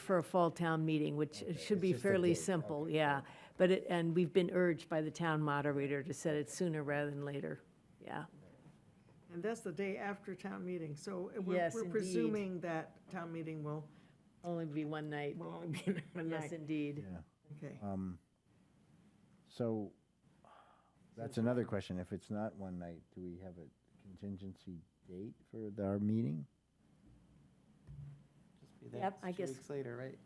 for a fall town meeting, which should be just a fairly date, simple, yeah. But it, and we've been urged by the town moderator to set it sooner rather than later, yeah. And that's the day after town meeting, so we're, Yes, we're indeed. presuming that town meeting will, Only be one night. will only be in one Yes, night. indeed. Okay, Um, So, that's another question. If it's not one night, do we have a contingency date for the- our meeting? Just be there. Yep, It's I guess- Two weeks later, right?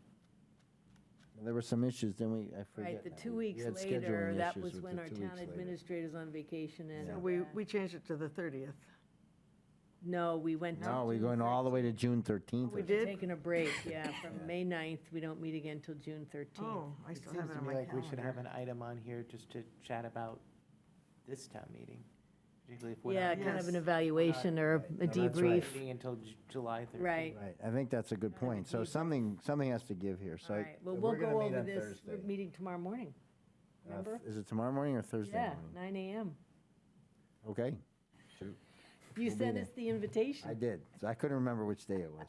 There were some issues, then we, I forget. Right, the now. two We- we weeks had later, scheduling that issues was with when the our two town weeks later. administrator's on vacation and. Yeah. so we, uh, we changed it to the thirtieth. No, we went to. No, we're June going all the way to June 13th. We or did? Taking a break, yeah, from Yeah. May 9th, we don't meet again till June 13th. Oh, I It still have seems it to on me my like we should have calendar. an item on here just to chat about this town meeting, particularly if we're Yeah, not. kind of an Yes. evaluation or a No, that's right. debrief, meeting Until Ju- July 13th. right. something. Right, I think that's a good I point. think So we- something, something has to give here, so. All I- right, well, so we'll we're gonna go meet over on this Thursday. meeting tomorrow morning, Uh, remember? Is it tomorrow morning or Thursday Yeah, morning? nine AM. Okay, You We'll be sent there. us the I invitation. did. So I couldn't remember which day it was.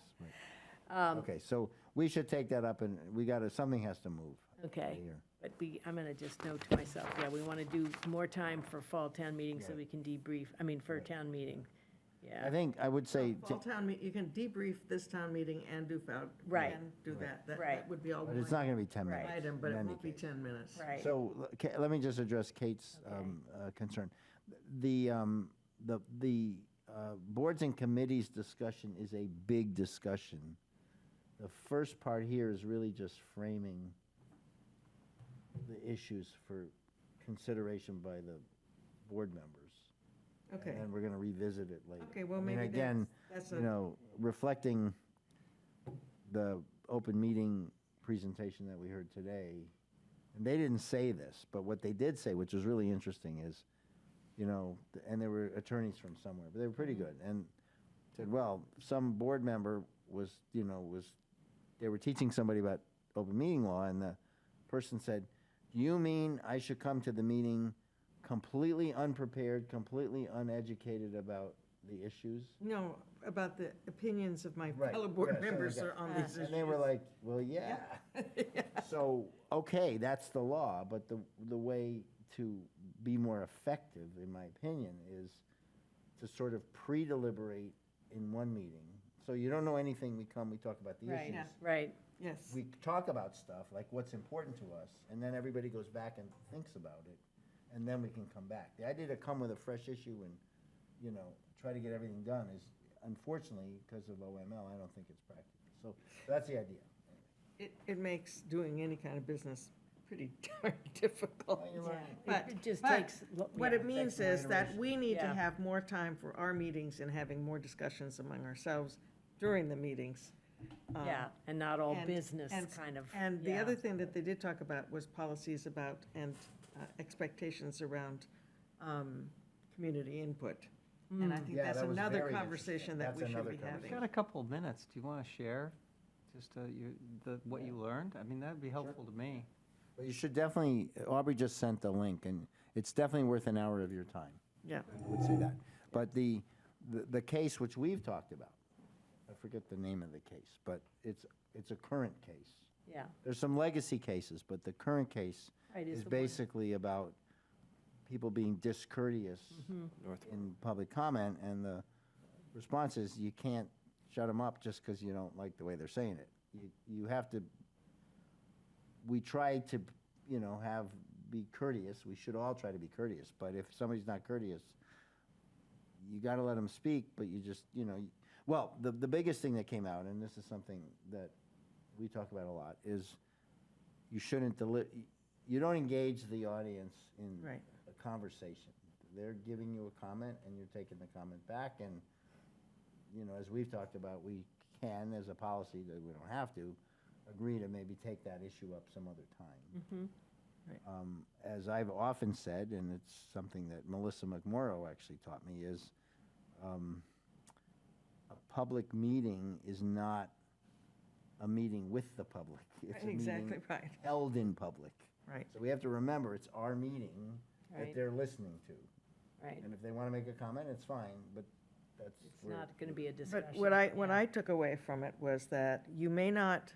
but- Um, Okay, so we should take that up and we gotta, something has to move. Okay, here. but we, I'm gonna just note to myself, yeah, we want to do more time for fall town meeting so Right. we can debrief, I mean, for a town meeting. I Yeah, think, I would say, Fall town, me- you can debrief this town meeting and do, fou- Right. and do that. That- Right. That would be all but one it's not gonna be 10 Right. minutes. item, but in it any won't be case. 10 minutes. right. So, l- Ka- let me just address Kate's Okay. um, uh, concern. The, um, the, the uh, boards and committees discussion is a big discussion. The first part here is really just framing the issues for consideration by the board members. Okay, And then we're gonna revisit it later. okay, well, I mean, maybe again, that's, that's you a, know, reflecting the open meeting presentation that we heard today, and they didn't say this, but what they did say, which was really interesting, is, you know, th- and there were attorneys from somewhere, but they were pretty Mm-hmm. good, and said, well, some board member was, you know, was, they were teaching somebody about open meeting law, and the person said, do you mean I should come to the meeting completely unprepared, completely uneducated about the issues? no, about the opinions of my Right, fellow yeah, board sorry, members yeah. are on Ah. these issues. And they were like, well, yeah. So, okay, that's the law, but the, the way to be more effective, in my opinion, is to sort of pre-deliberate in one meeting. So you don't know anything, we come, we talk about the Right, issues. right, Yes. We talk about stuff, like what's important to us, and then everybody goes back and thinks about it, and then we can come back. The idea to come with a fresh issue and, you know, try to get everything done is unfortunately, because of OML, I don't think it's practical. So that's the idea. It, it makes doing any kind of business pretty darn difficult. Well, you're right. But- It just but takes lo- What yeah, it means takes is more that iteration. we need to Yeah. have more time for our meetings and having more discussions among ourselves during the meetings. Um, yeah, and not all and- business and s- kind of. And the yeah. other thing that they did talk about was policies about and uh, expectations around um, community input. And Mm. I think Yeah, that's that was another very conversation interesting. that That's we should another be conversation. having. Got a couple of minutes. Do you want to share just uh, you, the, what you learned? I mean, that'd be helpful to me. But you should definitely, Aubrey just sent the link, and it's definitely worth an hour of your time. Yeah, I would say that. But the, the, the case which we've talked about, I forget the name of the case, but it's, it's a current case. Yeah, There's some legacy cases, but the current case Right, is is the one- basically about people being discourteous Mm-hmm. in public comment, and the response is, you can't shut them up just because you don't like the way they're saying it. You, you have to, we try to, you know, have, be courteous, we should all try to be courteous, but if somebody's not courteous, you got to let them speak, but you just, you know, you- well, the, the biggest thing that came out, and this is something that we talk about a lot, is you shouldn't deli, you don't engage the audience in Right. a conversation. They're giving you a comment and you're taking the comment back and, you know, as we've talked about, we can, as a policy, that we don't have to, agree to maybe take that issue up some other time. Mm-hmm, Um, As I've often said, and it's something that Melissa McMorrow actually taught me, is um, a public meeting is not a meeting with the public. It's a exactly meeting right, held in public. right. So we have to remember, it's our meeting Right. that they're listening to. right. And if they want to make a comment, it's fine, but that's. It's where- not going to be a discussion. But what I, what yeah. I took away from it was that you may not